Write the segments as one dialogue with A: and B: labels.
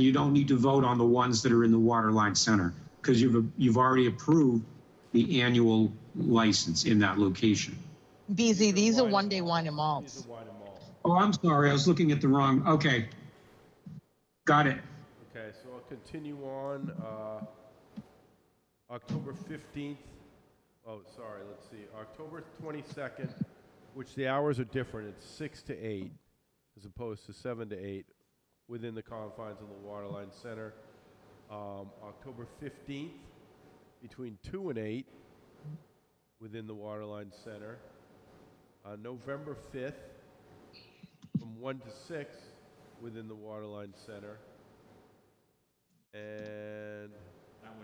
A: You don't need to vote on the ones that are in the Waterline Center because you've, you've already approved the annual license in that location.
B: BZ, these are one-day wine and malts.
C: These are wine and malt.
A: Oh, I'm sorry, I was looking at the wrong, okay. Got it.
C: Okay, so I'll continue on, uh, October 15th, oh, sorry, let's see, October 22nd, which the hours are different, it's 6 to 8, as opposed to 7 to 8, within the confines of the Waterline Center. Um, October 15th, between 2 and 8, within the Waterline Center. Uh, November 5th, from 1 to 6, within the Waterline Center. And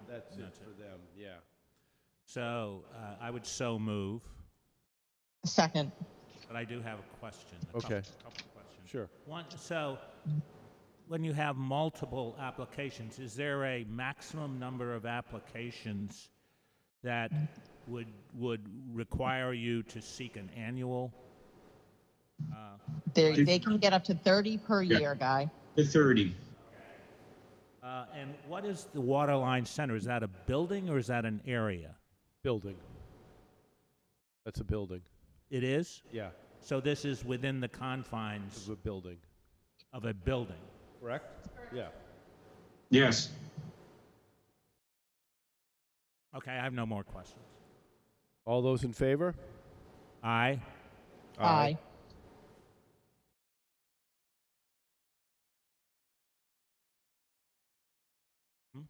C: that's it for them, yeah.
D: So uh, I would so move,
B: Second,
D: but I do have a question. a couple-
C: Okay.
D: couple questions.
C: Sure.
D: One, so when you have multiple applications, is there a maximum number of applications that would, would require you to seek an annual?
B: they, they can get up to 30 per year, Guy.
A: The 30.
D: Uh, And what is the Waterline Center? Is that a building or is that an area?
C: Building. That's a building.
D: It is?
C: Yeah,
D: So this is within the confines
C: it's a building.
D: of a building?
C: Correct? Yeah.
A: Yes.
D: Okay, I have no more questions.
C: All those in favor?
D: Aye?
B: Aye.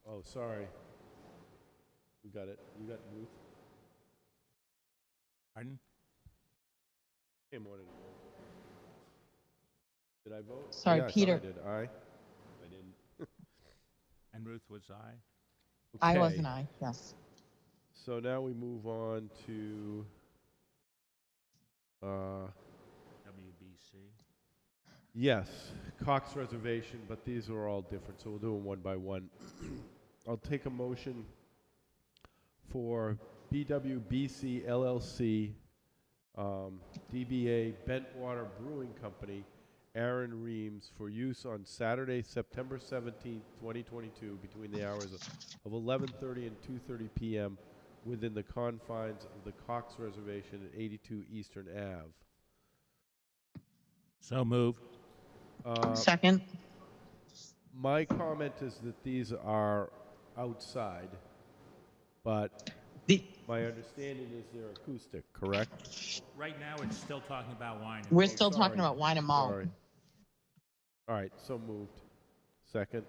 C: Oh, sorry. You got it. You got Ruth.
D: Pardon?
C: Came on and Did I vote?
B: Sorry,
C: Yeah, I thought
B: Peter.
C: I did. Aye. I didn't.
D: And Ruth was aye?
B: I
C: Okay.
B: was an aye, yes.
C: So now we move on to, uh,
D: WBC.
C: Yes, Cox Reservation, but these are all different, so we'll do them one by one. I'll take a motion for BWBC LLC, um, DBA Bentwater Brewing Company, Aaron Reams, for use on Saturday, September 17th, 2022, between the hours of of 11:30 and 2:30 p.m. within the confines of the Cox Reservation at 82 Eastern Ave.
D: So moved.
C: Uh,
B: Second,
C: My comment is that these are outside, but
B: the,
C: my understanding is they're acoustic, correct?
D: Right now, it's still talking about wine. and
B: we're
D: malt.
B: still talking
C: oh, sorry.
B: about wine and malt.
C: Sorry. All right, so moved. Second,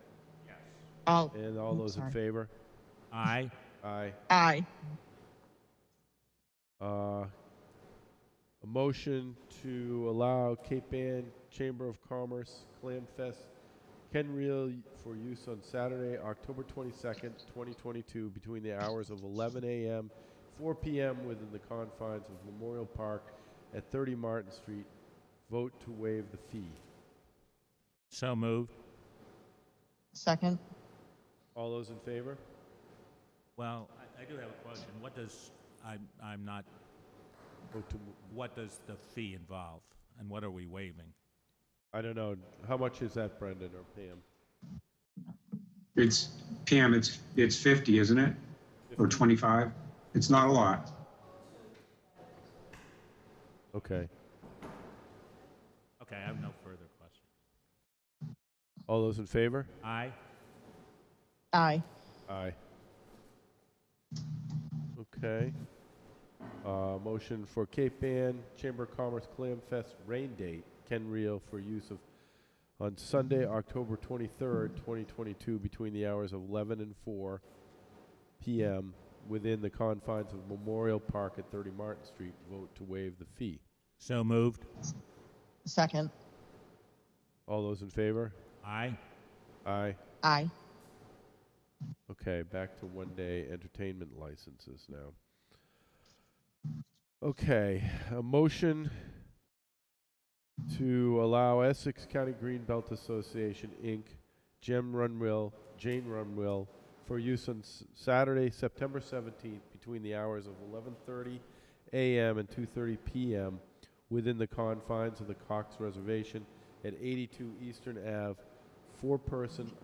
B: Oh,
C: and all
B: I'm
C: those in
B: sorry.
C: favor?
D: Aye.
C: Aye.
B: aye.
C: Uh, A motion to allow Cape Ann Chamber of Commerce Clam Fest Ken Reel for use on Saturday, October 22nd, 2022, between the hours of 11 a.m., 4 p.m. within the confines of Memorial Park at 30 Martin Street. Vote to waive the fee.
D: So moved.
B: Second,
C: All those in favor?
D: Well, I, I do have a question. What does, I'm, I'm not,
C: Vote to, mo-
D: what does the fee involve? And what are we waiving?
C: I don't know, how much is that, Brendan or Pam?
A: It's, Pam, it's, it's 50, isn't it? Or 25? It's not a lot.
C: Okay.
D: Okay, I have no further questions.
C: All those in favor?
D: Aye?
B: aye.
C: Aye. Okay. Uh, motion for Cape Ann Chamber of Commerce Clam Fest rain date, Ken Reel for use of on Sunday, October twenty-third, twenty twenty-two, between the hours of eleven and four PM within the confines of Memorial Park at thirty Martin Street. Vote to waive the fee.
D: So moved.
B: Second,
C: All those in favor?
D: Aye?
C: Aye.
B: aye.
C: Okay, back to one day entertainment licenses now. Okay, a motion to allow Essex County Greenbelt Association, Inc., Jim Runwill, Jane Runwill, for use on S- Saturday, September 17th, between the hours of 11:30 a.m. and 2:30 p.m. within the confines of the Cox Reservation at 82 Eastern Ave, four-person